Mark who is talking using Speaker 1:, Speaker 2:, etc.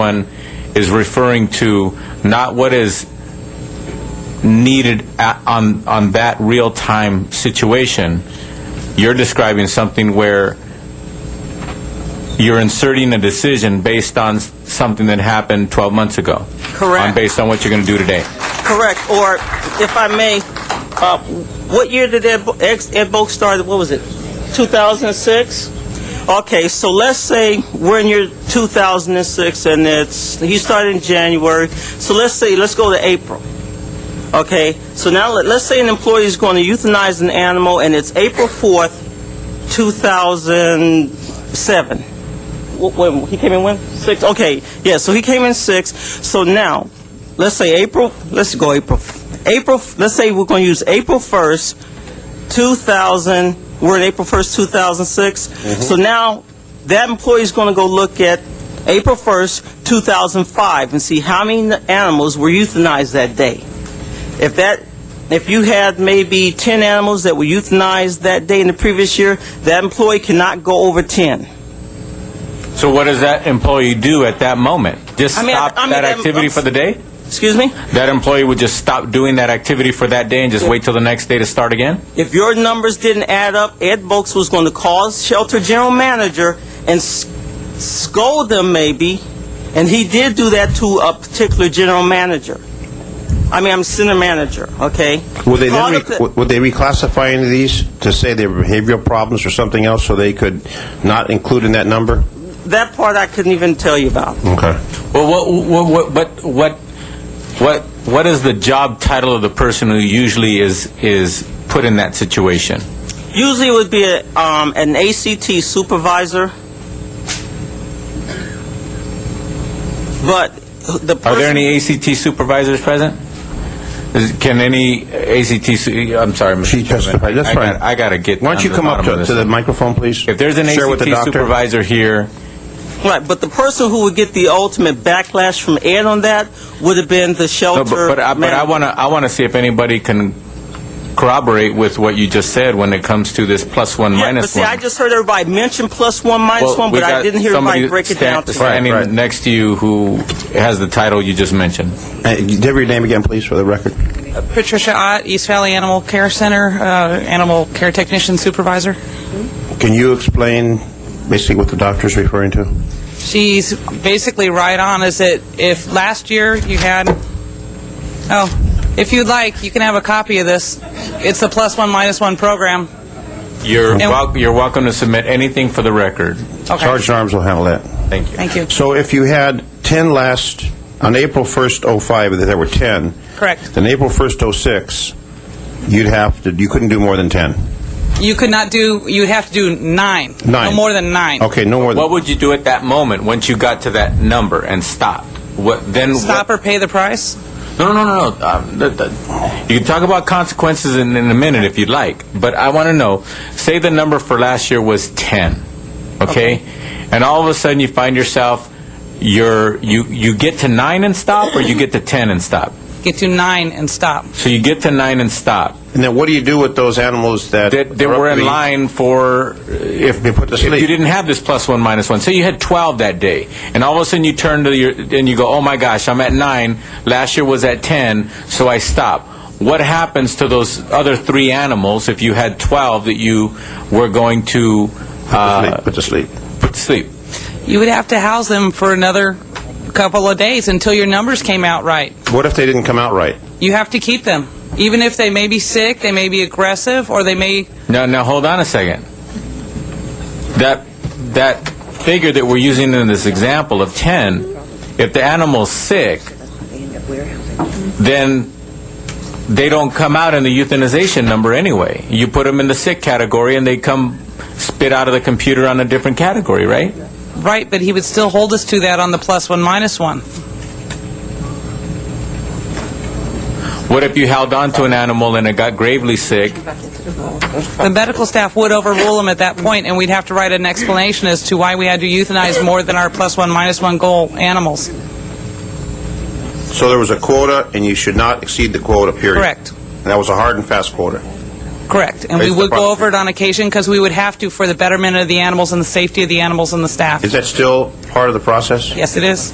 Speaker 1: one is referring to not what is needed a- on, on that real-time situation. You're describing something where you're inserting a decision based on s- something that happened 12 months ago.
Speaker 2: Correct.
Speaker 1: On- Based on what you're going to do today.
Speaker 2: Correct. Or, if I may, uh, what year did Ed, Bo- ex- Ed Boak start? What was it? 2006. Okay, so let's say we're in year 2006, and it's he started in January. So let's say let's go to April. Okay, so now let, let's say an employee is going to euthanize an animal, and it's April 4th, 2007. Wh- when he came in when six okay yeah so he came in six so now let's say april let's go april april let's say we're going to use april 1st 2000 we're in april 1st 2006 so now that employee is going to go look at april 1st 2005 and see how many animals were euthanized that day if that, if you had maybe 10 animals that were euthanized that day in the previous year, that employee cannot go over 10.
Speaker 1: So what does that employee do at that moment? Just
Speaker 2: I mean, I-
Speaker 1: stop
Speaker 2: I mean,
Speaker 1: that
Speaker 2: I'm-
Speaker 1: activity
Speaker 2: I'm-
Speaker 1: for the day?
Speaker 2: Excuse me?
Speaker 1: That employee would just stop doing that activity for that day and just wait till the next day to start again?
Speaker 2: If your numbers didn't add up, Ed Boakes was going to call shelter general manager and s- scold them maybe, and he did do that to a particular general manager. I mean, I'm center manager, okay?
Speaker 3: Would they then,
Speaker 2: Called up
Speaker 3: rec-
Speaker 2: the-
Speaker 3: would would they reclassify any of these to say they were behavioral problems or something else, so they could not include in that number?
Speaker 2: That part I couldn't even tell you about.
Speaker 3: Okay.
Speaker 1: Well, what, what, what, what, what, what is the job title of the person who usually is, is put in that situation?
Speaker 2: Usually it would be a, um, an ACT supervisor. But the person,
Speaker 1: Are there any ACT supervisors present? Is, can any ACT, su- I'm sorry, Mr.
Speaker 3: She testified,
Speaker 1: Chairman.
Speaker 3: that's
Speaker 1: I
Speaker 3: fine.
Speaker 1: got- I gotta get.
Speaker 3: Why don't
Speaker 1: down
Speaker 3: you
Speaker 1: the
Speaker 3: come up
Speaker 1: bottom of
Speaker 3: to
Speaker 1: this.
Speaker 3: to the microphone, please?
Speaker 1: If there's an
Speaker 3: Share with the
Speaker 1: ACT
Speaker 3: doctor.
Speaker 1: supervisor here,
Speaker 2: right? But the person who would get the ultimate backlash from Ed on that would have been the
Speaker 1: no,
Speaker 2: shelter.
Speaker 1: but, but I, but I
Speaker 2: manager.
Speaker 1: wanna, I wanna see if anybody can corroborate with what you just said when it comes to this plus one,
Speaker 2: Yeah,
Speaker 1: minus
Speaker 2: but see,
Speaker 1: one.
Speaker 2: I just heard everybody mention plus one, minus
Speaker 1: Well,
Speaker 2: one,
Speaker 1: we
Speaker 2: but I
Speaker 1: got
Speaker 2: didn't hear
Speaker 1: somebody
Speaker 2: everybody break it down
Speaker 1: stand-
Speaker 2: to
Speaker 1: Standing
Speaker 3: Right, right.
Speaker 1: next to you who has the title you just mentioned.
Speaker 3: Uh, Give your name again, please, for the record.
Speaker 4: Patricia Ott, East Valley Animal Care Center, uh, animal care technician supervisor.
Speaker 3: Can you explain basically what the doctor's referring to?
Speaker 4: She's basically right on. Is that if last year you had, oh, if you'd like, you can have a copy of this. It's the plus one minus one program.
Speaker 1: You're,
Speaker 4: And-
Speaker 1: wel- you're welcome to submit anything for the record.
Speaker 4: Okay.
Speaker 3: Sergeant Arms will handle that.
Speaker 1: Thank you.
Speaker 4: Thank you.
Speaker 3: So if you had 10 last, on April 1st, 05, that there were 10.
Speaker 4: Correct.
Speaker 3: Then April 1st, 06, you'd have to, you couldn't do more than 10.
Speaker 4: You could not do. You'd have to do nine.
Speaker 3: Nine.
Speaker 4: No more than nine.
Speaker 3: Okay, no more than.
Speaker 1: What would you do at that moment once you got to that number and stopped? What then?
Speaker 4: Stop or pay the price.
Speaker 1: What, no, no, no, no. Um, th- th- you can talk about consequences in, in a minute if you'd like, but I want to know. Say the number for last year was ten, okay? And all of a sudden you find yourself, you're you you get to nine and stop, or you get to ten and stop.
Speaker 4: Get to nine and stop.
Speaker 1: So you get to nine and stop.
Speaker 3: And then what do you do with those animals that?
Speaker 1: that, that
Speaker 3: are up
Speaker 1: were
Speaker 3: to
Speaker 1: in
Speaker 3: be-
Speaker 1: line for uh, if,
Speaker 3: Be put to
Speaker 1: if
Speaker 3: sleep.
Speaker 1: you didn't have this plus one minus one. Say you had 12 that day, and all of a sudden you turn to your and you go, "Oh my gosh, I'm at nine. Last year was at 10, so I stop." What happens to those other three animals if you had 12 that you were going to
Speaker 3: Put to
Speaker 1: uh,
Speaker 3: sleep, put to sleep.
Speaker 1: put to sleep?
Speaker 4: You would have to house them for another couple of days until your numbers came out right.
Speaker 3: What if they didn't come out right?
Speaker 4: You have to keep them. Even if they may be sick, they may be aggressive, or they may.
Speaker 1: Now, now hold on a second. That that figure that we're using in this example of 10, if the animal's sick, then they don't come out in the euthanization number anyway. You put them in the sick category and they come spit out of the computer on a different category, right?
Speaker 4: Right, but he would still hold us to that on the plus one, minus one.
Speaker 1: What if you held on to an animal and it got gravely sick?
Speaker 4: The medical staff would overrule him at that point, and we'd have to write an explanation as to why we had to euthanize more than our plus one, minus one goal animals.
Speaker 3: So there was a quota, and you should not exceed the quota, period.
Speaker 4: Correct.
Speaker 3: And that was a hard and fast quota.
Speaker 4: Correct. And we
Speaker 3: Based
Speaker 4: would
Speaker 3: upon-
Speaker 4: go over it on occasion because we would have to for the betterment of the animals and the safety of the animals and the staff.
Speaker 3: Is that still part of the process?
Speaker 4: Yes, it is.